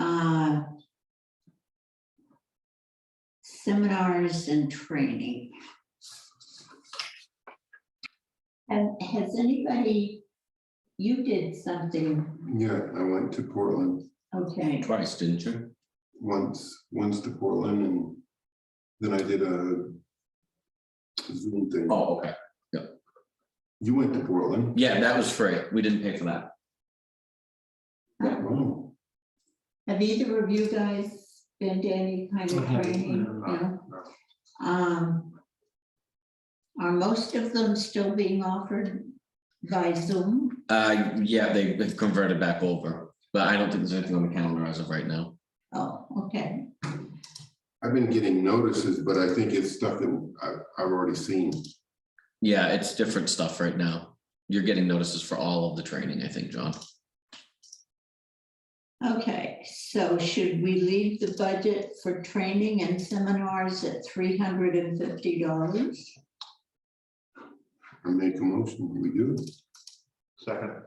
Uh, Seminars and training. And has anybody, you did something, Yeah, I went to Portland okay, Twice, didn't you? once, once to Portland and then I did a Zoom thing. Oh, okay. You went to Portland? Yeah, that was free. We didn't pay for that. Wow. have either of you guys been to any kind of training? No? Um, Are most of them still being offered by Zoom? Uh, yeah, they- they've converted back over, but I don't think there's anything on the calendar as of right now. Oh, okay, I've been getting notices, but I think it's stuff that I've, I've already seen. Yeah, it's different stuff right now. You're getting notices for all of the training, I think, John. okay, so should we leave the budget for training and seminars at three hundred and fifty dollars? I make a motion, we do. Second.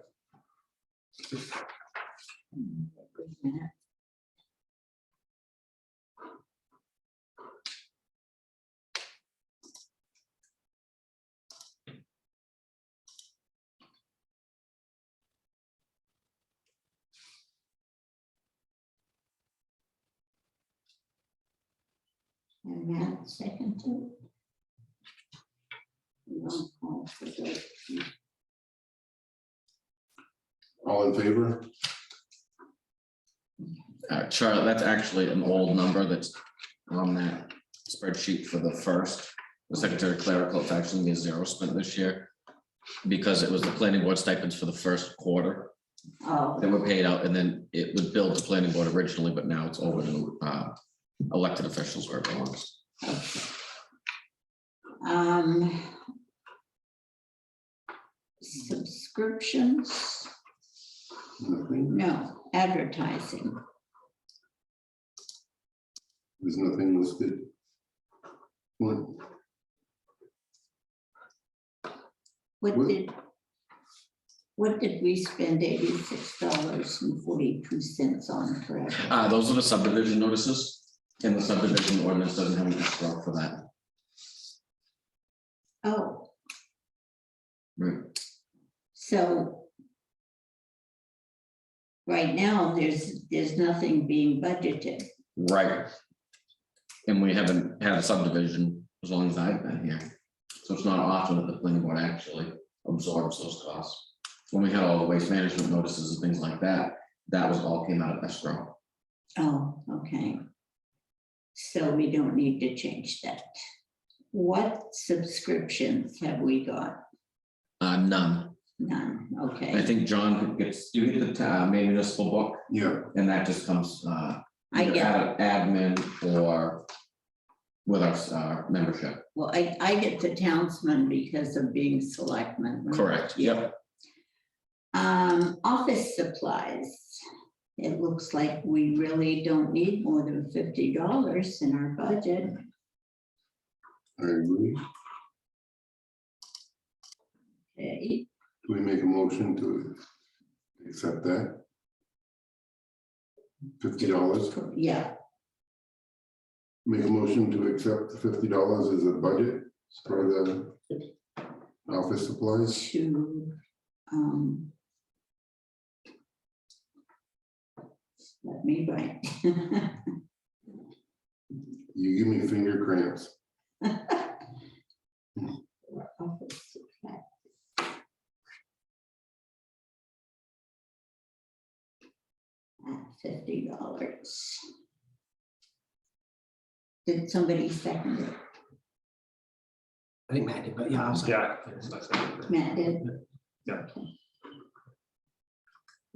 And Matt, second to. Roll call for the- All in favor? Uh, Charlotte, that's actually an old number that's on that spreadsheet for the first. The Secretary of Clerical, it's actually a zero spent this year because it was the planning board stipends for the first quarter that Oh, were paid out, and then it was billed to planning board originally, but now it's over to uh, elected officials where it belongs. um. Subscriptions, Nothing. no, advertising, There's nothing listed. What? what Well- did? What did we spend eighty-six dollars and forty-two cents on forever? Uh, Those are the subdivision notices, and the subdivision ordinance doesn't have an escrow for that. Oh. Right. So. Right now, there's, there's nothing being budgeted. Right. And we haven't had a subdivision as long as I've been here. So it's not often that the planning board actually absorbs those costs. When we had all the waste management notices and things like that, that was all came out of escrow. Oh, okay. So we don't need to change that. What subscriptions have we got? Uh, none. None, I okay. think John gets, do you get the uh, main municipal book? Yeah, And that just comes, uh, I either get, out of admin or with our, uh, membership. well, I, I get the townsman because of being selectman. Correct, yep. Um, office supplies. It looks like we really don't need more than fifty dollars in our budget. I agree. Okay, Do we make a motion to accept that? Fifty dollars, yeah, make a motion to accept the fifty dollars as a budget for the office supplies? to, um. Let me write. You give me finger cramps. Office supply. At Fifty dollars. Did somebody second it? I think Matt did, but yeah, I was. Yeah. Matt did? Yeah. Okay,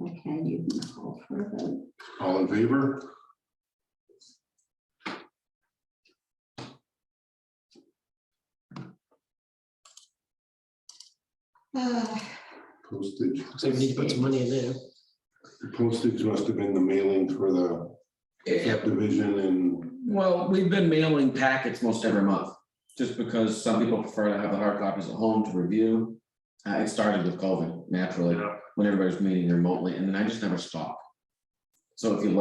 Okay, you can call for a vote. All in favor? Uh, Postage, So we need to put some money in there. The postage must have been the mailing for the subdivision and, Well, we've been mailing packets most every month, just because some people prefer to have the hard copies at home to review. Uh, it started with COVID naturally, Yeah. when everybody was meeting remotely, and then I just never stopped. So if you like.